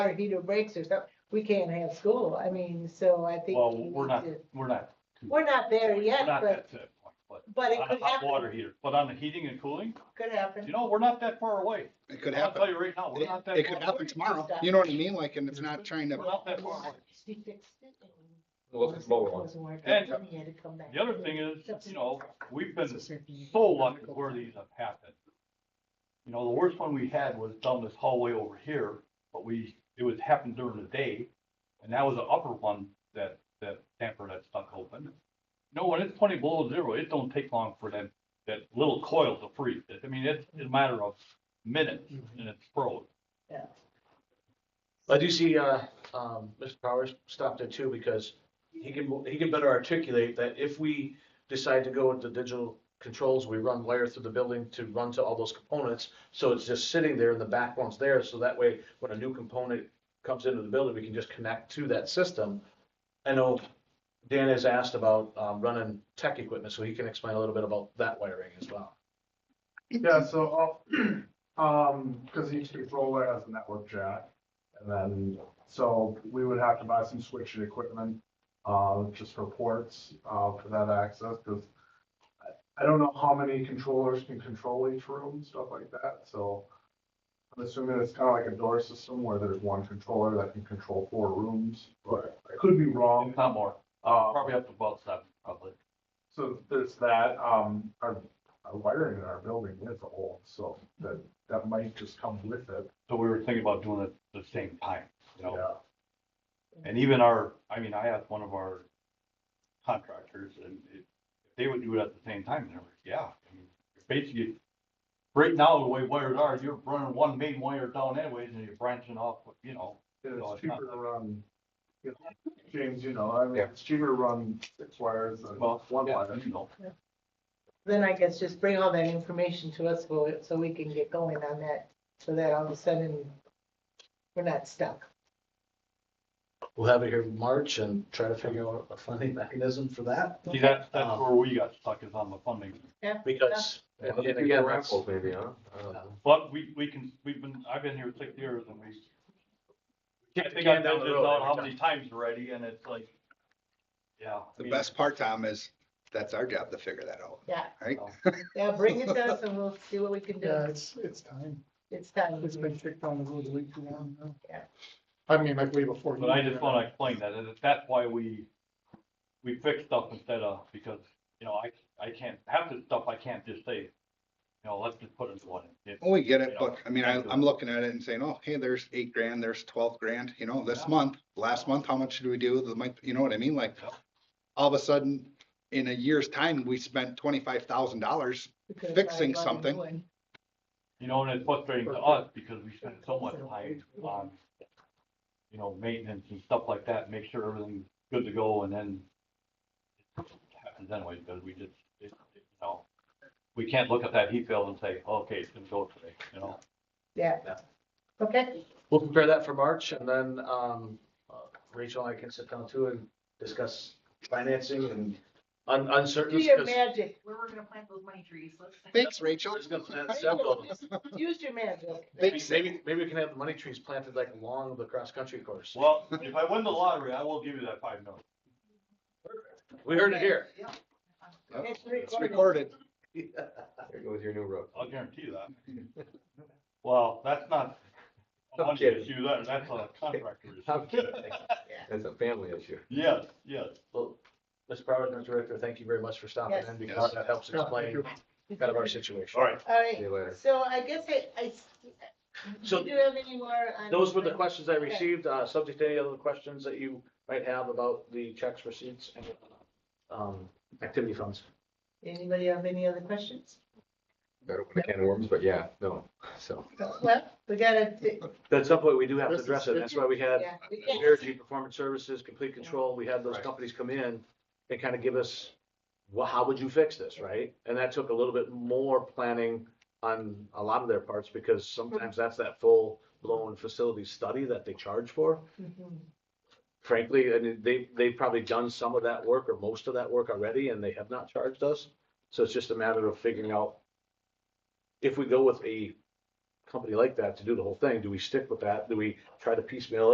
water heater breaks or something, we can't have school. I mean, so I think. Well, we we're need not, to- we're not. too- We're not there we're yet, not but, that to that point, but but it on could the hot happen, water heater, but on the heating and cooling, could you happen. know, we're not that far away. It could I'll happen. tell you right now, we're It not that. it could far happen away. tomorrow. You know what I mean? Like, and it's not trying We're to, not that far away. She fixed it and Well, it's a lower one. wasn't working, And and he had to come back. The other thing is, you know, we've been so lucky where these have happened. You know, the worst one we had was down this hallway over here, but we, it was happened during the day. And that was the upper one that, that damper that stuck open. No, when it's twenty below zero, it don't take long for that, that little coil to freeze. It- I mean, it's a matter of minutes and it's froze. Yeah. I do see, uh, um, Mr. Powers stopped there too, because he can, he can better articulate that if we decide to go with the digital controls, we run wire through the building to run to all those components, so it's just sitting there and the back one's there, so that way, when a new component comes into the building, we can just connect to that system. I know Dan has asked about, um, running tech equipment, so he can explain a little bit about that wiring as well. Yeah, so, uh, um, cause each controller has a network jack. And then, so we would have to buy some switching equipment, uh, just for ports, uh, for that access, cause I- I don't know how many controllers can control each room, stuff like that, so. I'm assuming it's kinda like a door system where there's one controller that can control four rooms, but I could be wrong. If not more, Uh, probably up to about seven, probably. so there's that, um, our, our wiring in our building is old, so that, that might just come with it, So we were thinking about doing it the same time, you know? yeah. And even our, I mean, I asked one of our contractors and it, if they would do it at the same time, and they were, yeah. I mean, you're Basically, right now, the way wires are, you're running one main wire down anyways and you're branching off, you know. And No, It's it's not. cheaper to run, you know, James, you know, I mean, Yeah. it's cheaper to run six wires than Well, one yeah, wire. you know. Then I guess just bring all that information to us so, so we can get going on that, so that all of a sudden we're not stuck. We'll have it here in March and try to figure out a funding mechanism for that. See, that's, that's where we got stuck is on the funding. Because, and Well, maybe again, a that's, Uh, raffle maybe, huh? Oh, I don't know. But we, we can, we've been, I've been here six years and we. Can't think Can I've been down the this road out every how time. many times already and it's like, yeah. I the mean, best part, Tom, is that's our job to figure that out. Yeah, Right? yeah, bring it to us and we'll see what we can Yeah, do. it's, it's time. It's time. It's been kicked down the road way too long now. Yeah. I mean, like way before. uh, But you I were just there. wanna explain that, that that's why we, we fix stuff instead of, because, you know, I, I can't, half the stuff I can't just say, you know, let's just put it in one. It- Oh, we get you it, know, but I mean, I, I'm looking at it and saying, oh, hey, there's eight grand, there's twelve grand, you know, this Yeah. month, last month, how much did we do? The month, you know what I mean? Like, Yep. all of a sudden, in a year's time, we spent twenty-five thousand dollars. We could've fixing probably bought a new something. one. You know, and it's frustrating to us because we spend so much time on, you know, maintenance and stuff like that, make sure everything's good to go and then it happens anyway, because we just, it, it, you know, we can't look at that heat bill and say, okay, it's gonna go today, you know? Yeah. Okay. we'll prepare that for March and then, um, uh, Rachel and I can sit down too and discuss financing and un- Do uncertainties. your 'cause magic. Where we're gonna plant those money trees, let's. Thanks, Rachel. there's gonna plant several. Use your magic. Maybe, maybe, maybe we can have the money trees planted like along the cross-country course. Well, if I win the lottery, I will give you that five million. We heard it here. It's It's recorded. recorded. There goes your new roof. I'll guarantee that. Well, that's not a I'm money kidding. issue, that, that's a contractor I'm issue. kidding. That's a family issue. Yes, yes. Well, Mr. Powers, Mr. Director, thank you very much for stopping Yes. in because that helps Yeah, thank explain you. kind of our situation. All right. All See right, you later. so I guess I, I, do So you have any more? on- Those were the questions I Okay. received, uh, subject to any other questions that you might have about the checks, receipts, and, um, activity funds. Anybody have any other questions? Better open a can of worms, but yeah, no, so. Well, we gotta, t- At some point, we do have to address it, that's why we had yeah, we can. Energy Performance Services, Complete Control, we had those Right. companies come in and kind of give us, well, how would you fix this, right? And that took a little bit more planning on a lot of their parts, because sometimes that's that full-blown facility study that they charge for. Mhm. frankly, I mean, they, they've probably done some of that work or most of that work already and they have not charged us. So it's just a matter of figuring out if we go with a company like that to do the whole thing, do we stick with that? Do we try to piecemeal it?